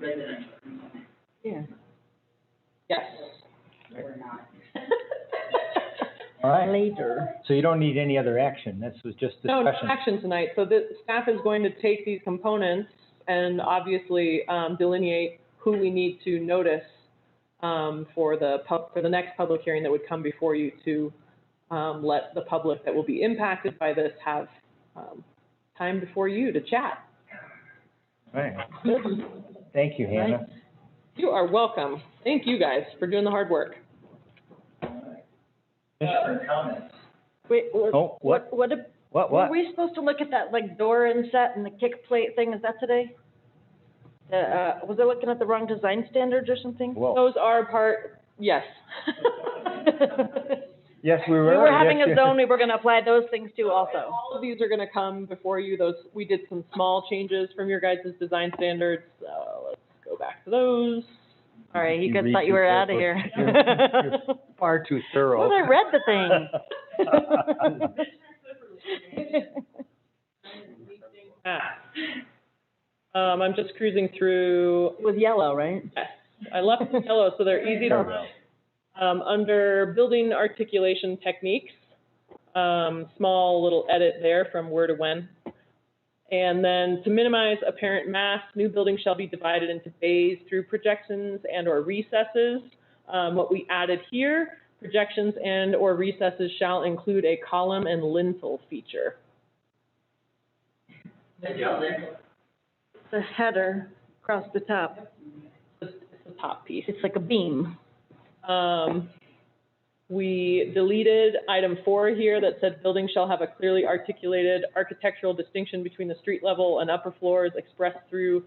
way that I'm talking about. Yeah. Yes. We're not. All right, Later. so you don't need any other action, this was just No, no discussion. action tonight. So the staff is going to take these components and obviously um, delineate who we need to notice um, for the pub, for the next public hearing that would come before you to um, let the public that will be impacted by this have um, time before you to chat. All right. Thank you, Hannah. You are welcome. Thank you guys for doing the hard work. Commissioner comments? Wait, what, Oh, what, what, ab- what, were what? we supposed to look at that, like, door inset and the kick plate thing, is that today? The, uh, was I looking at the wrong design standards or something? Whoa, Those are part, yes. yes, we We were. were having Yes, a you- zone, we were gonna apply those things to And also. All of these are gonna come before you, those, we did some small changes from your guys' design standards, so let's go back to those. All right, you You guys read thought you through were that out of book. here. You're- Far too thorough. Well, I read the thing. Ah. Um, I'm just cruising through, It was yellow, right? yes, I left them yellow, so they're easy to Sure. Um, under building articulation techniques, um, small little edit there from where to when. And then to minimize apparent mass, new buildings shall be divided into bays through projections and or recesses. Um, what we added here, projections and or recesses shall include a column and lintel feature. Good job, Lynn. The header across the top, It's the top piece. it's like a beam. Um, we deleted item four here that said buildings shall have a clearly articulated architectural distinction between the street level and upper floors expressed through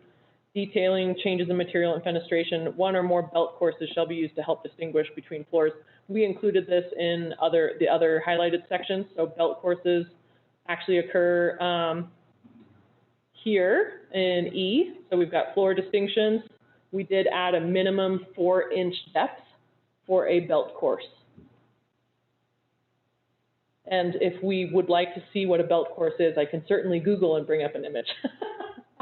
detailing changes in material and fenestration. One or more belt courses shall be used to help distinguish between floors. We included this in other, the other highlighted sections, so belt courses actually occur, um, here in E, so we've got floor distinctions. We did add a minimum four-inch depth for a belt course. And if we would like to see what a belt course is, I can certainly Google and bring up an image.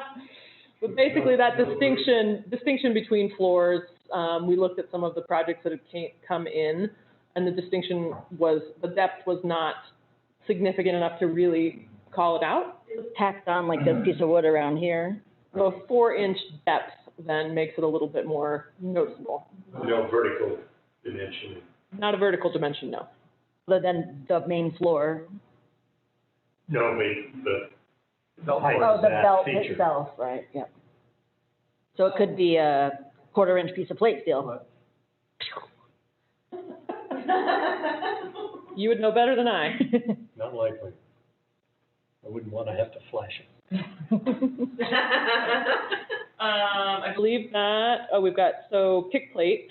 But basically, that distinction, distinction between floors, um, we looked at some of the projects that had came, come in, and the distinction was, the depth was not significant enough to really call it out. tacked on like this piece of wood around here. So a four-inch depth then makes it a little bit more noticeable. No vertical dimension. Not a vertical dimension, no. But then the main floor. No, wait, the, the height Oh, of the that belt feature. itself, right, yep. So it could be a quarter inch piece of plate steel. You would know better than I. Not likely. I wouldn't want to have to flash it. Um, I believe that, oh, we've got, so kick plate.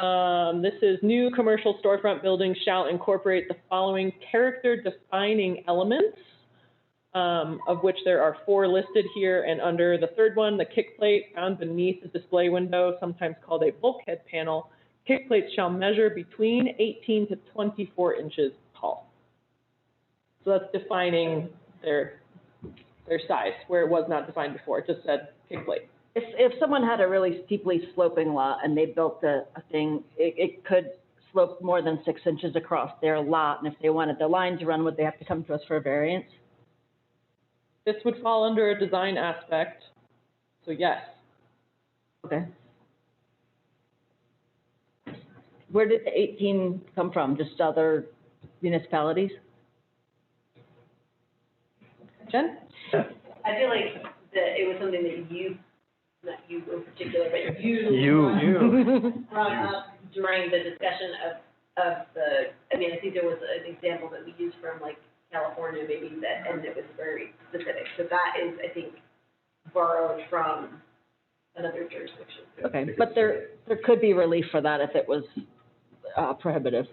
Um, this is new commercial storefront buildings shall incorporate the following character defining elements, um, of which there are four listed here and under the third one, the kick plate found beneath the display window, sometimes called a bulkhead panel. Kick plates shall measure between eighteen to twenty-four inches tall. So that's defining their their size, where it was not defined before, it just said kick plate. If, if someone had a really steeply sloping lot and they built a, a thing, it, it could slope more than six inches across their lot. And if they wanted the line to run, would they have to come to us for a variance? This would fall under a design aspect, so yes. Okay. Where did the eighteen come from? Just other municipalities? Jen? I feel like that it was something that you, not you in particular, but you. You. Brought up during the discussion of, of the, I mean, I think there was an example that we used from like California maybe that, and it was very specific. So that is, I think, borrowed from another jurisdiction. Okay, but there, there could be relief for that if it was uh, prohibitive.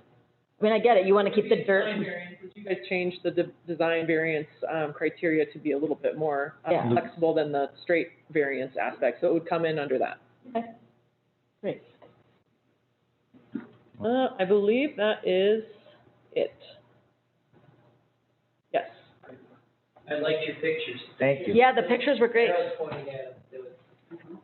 I mean, I get it, you want to keep the Design dirt, variance, You guys changed the de- design variance um, criteria to be a little bit more uh, Yeah. flexible than the straight variance aspect, so it would come in under that. Great. Uh, I believe that is it. Yes. I like your pictures. Thank you. yeah, the pictures were great. That was pointing at, it was